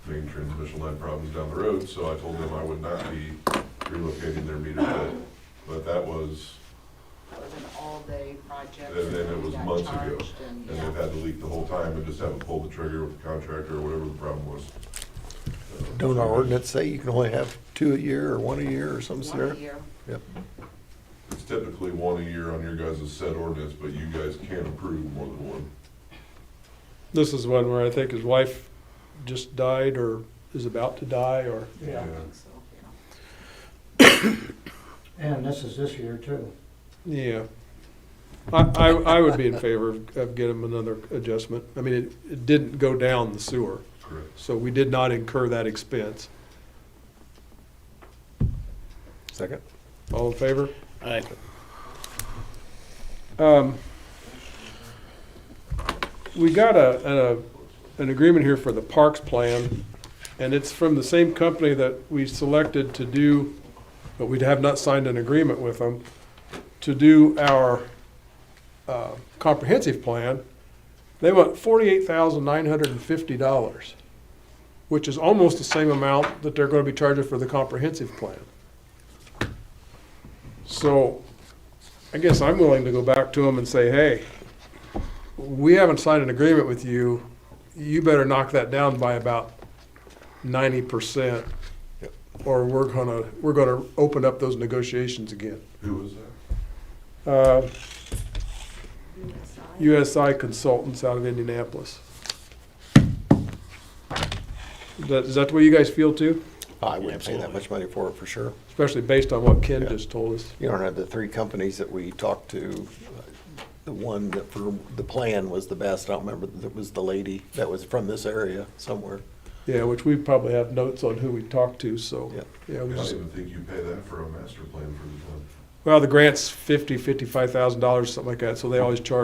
transmission line problems down the road, so I told them I would not be relocating their meter pit. But that was, It was an all-day project. And then it was we got months ago. charged and- and they've had the leak the whole time, and just haven't pulled the trigger with the contractor or whatever the problem was. Uh, Don't so our it's- ordinance say you can only have two a year or one a year or some yeah, scenario? One year. It's typically one a year on your guys' set ordinance, but you guys can approve more than one. This is one where I think his wife just died or is about to die or, I Yeah, think so, yeah. and this is this year too. yeah. I, I, I would be in favor of, of getting him another adjustment. I mean, it, it didn't go down the sewer, Correct. so we did not incur that expense. Second? All in favor? Aye. Um, We got a, a, an agreement here for the parks plan, and it's from the same company that we selected to do, but we have not signed an agreement with them, to do our, uh, comprehensive plan. They want forty-eight thousand nine hundred and fifty dollars, which is almost the same amount that they're gonna be charging for the comprehensive plan. So, I guess I'm willing to go back to them and say, hey, we haven't signed an agreement with you. You better knock that down by about ninety percent. Yep. Or we're gonna, we're gonna open up those negotiations again. Who was that? Uh, USI. USI Consultants out of Indianapolis. Is that, is that the way you guys feel too? I wouldn't pay that Absolutely. much money for it, for sure. Especially based on what Ken Yeah. just told us. You don't have the three companies that we talked to, uh, the one that for, the plan was the best, I don't remember, that was the lady that was from this area somewhere. Yeah, which we probably have notes on who we talked to, so. Yep. Yeah, I we don't just, even think you pay that for a master plan for the town. well, the grant's fifty, fifty-five thousand dollars, something like that, so they always charge